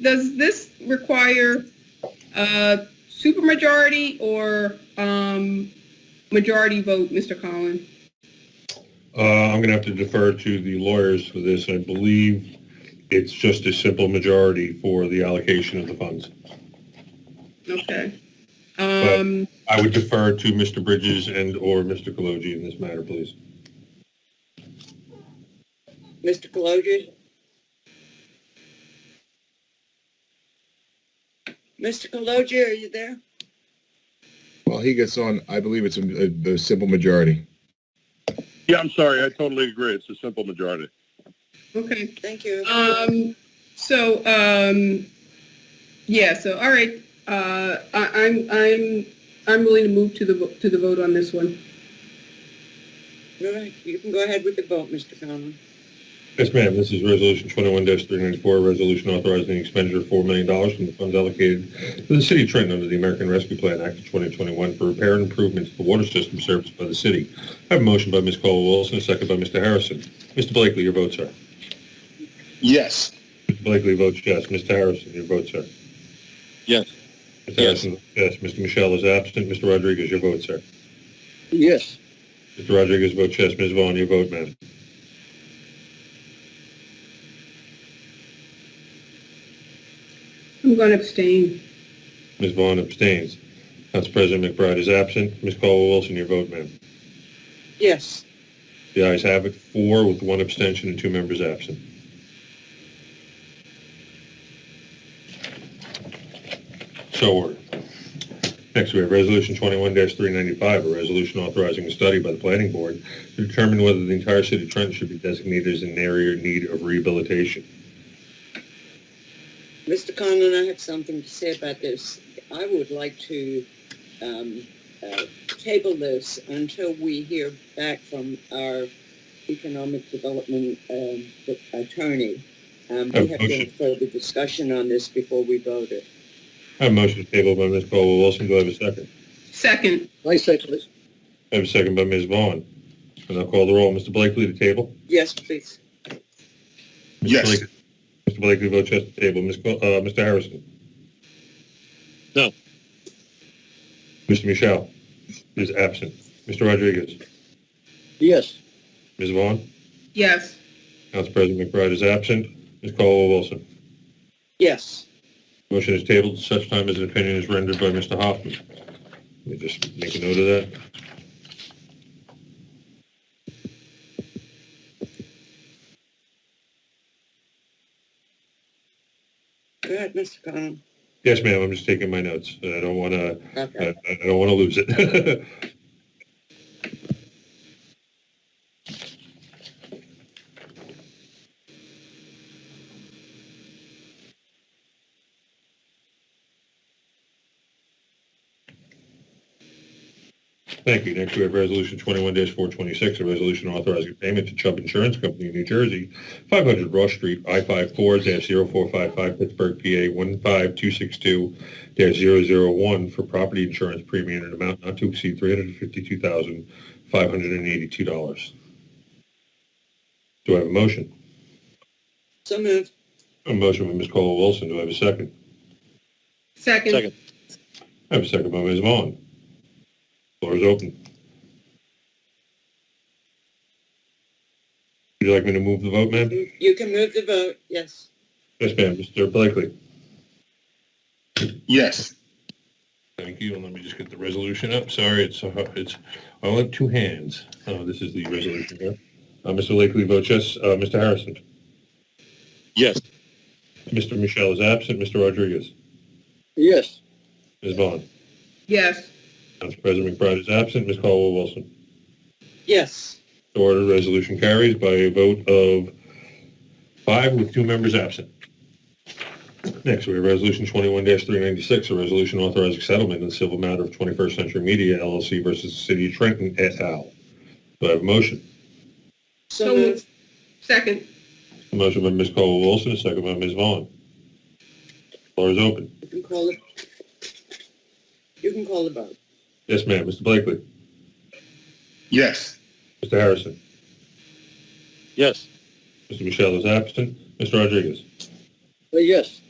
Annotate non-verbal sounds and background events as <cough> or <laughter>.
does this require a supermajority or um, majority vote, Mr. Collin? Uh, I'm going to have to defer to the lawyers for this. I believe it's just a simple majority for the allocation of the funds. Okay. Um, I would defer to Mr. Bridges and/or Mr. Kaloji in this matter, please. Mr. Kaloji? Mr. Kaloji, are you there? Well, he gets on, I believe it's a, a, a simple majority. Yeah, I'm sorry. I totally agree. It's a simple majority. okay. Thank you. Um, so, um, yeah, so, all right, uh, I, I'm, I'm, I'm willing to move to the, vo- to the vote on this one. All right, You can go ahead with the vote, Mr. Conlon. Yes, ma'am. This is Resolution 21-394, a resolution authorizing the expenditure of $4 million from the funds allocated to the City of Trenton under the American Rescue Plan Act of 2021 for repair and improvements to the water system serviced by the city. I have a motion by Ms. Caldwell-Wilson, a second by Mr. Harrison. Mr. Blakely, your vote, sir. Yes. Mr. Blakely votes yes. Mr. Harrison, your vote, sir. Yes. Mr. Harrison, votes yes. Mr. Michelle is absent. Mr. Rodriguez, your vote, sir. Yes. Mr. Rodriguez votes yes. Ms. Vaughn, your vote, ma'am. I'm going to abstain. Ms. Vaughn abstains. Council President McBride is absent. Ms. Caldwell-Wilson, your vote, ma'am. Yes, The ayes have it, four with one abstention and two members absent. So ordered. Next, we have Resolution 21-395, a resolution authorizing a study by the Planning Board to determine whether the entire city of Trenton should be designated as an area in need of rehabilitation. Mr. Conlon, I have something to say about this. I would like to um, uh, table this until we hear back from our economic development um, attorney. Um, We have no Motion. further discussion on this before we voted. I have a motion to table by Ms. Caldwell-Wilson. Do I have a second? Second, I second it. I have a second by Ms. Vaughn. And I'll call the roll. Mr. Blakely to table? Yes, please. Mr. Yes. Blakely- Mr. Blakely votes yes to table. Ms. Col- uh, Mr. Harrison? No. Mr. Michelle is absent. Mr. Rodriguez? Yes. Ms. Vaughn? yes. Council President McBride is absent. Ms. Caldwell-Wilson? Yes. Motion is tabled at such time as an opinion is rendered by Mr. Hoffman. Let me just make a note of that. Go ahead, Mr. Conlon. Yes, ma'am, I'm just taking my notes. I don't want to, Okay. I I don't want to lose it. <laughs> Thank you. Next, we have Resolution 21-426, a resolution authorizing payment to Chubb Insurance Company of New Jersey, 500 Rush Street, I-54-0455, Pittsburgh, PA, 15262-001 for property insurance premium in an amount not to exceed $352,582. Do I have a motion? So moved. A motion by Ms. Caldwell-Wilson. Do I have a second? Second, I have a second by Ms. Vaughn. Floor is open. Would you like me to move the vote, ma'am? You can move the vote, yes. Yes, ma'am. Mr. Blakely. Yes. Thank you. And let me just get the resolution up. Sorry, it's, uh, it's, I only have two hands. Oh, this is the resolution here. Uh, Mr. Blakely votes yes. Uh, Mr. Harrison. Yes. Mr. Michelle is absent. Mr. Rodriguez. Yes. Ms. Vaughn. yes. Council President McBride is absent. Ms. Caldwell-Wilson. Yes. The order resolution carries by a vote of five with two members absent. Next, we have Resolution 21-396, a resolution authorizing settlement in the civil matter of 21st Century Media LLC versus the City of Trenton et al. Do I have a motion? So moved. Second, A motion by Ms. Caldwell-Wilson, a second by Ms. Vaughn. Floor is open. You can call it. You can call the vote. Yes, ma'am. Mr. Blakely. Yes. Mr. Harrison. Yes. Mr. Michelle is absent. Mr. Rodriguez. Uh, Yes.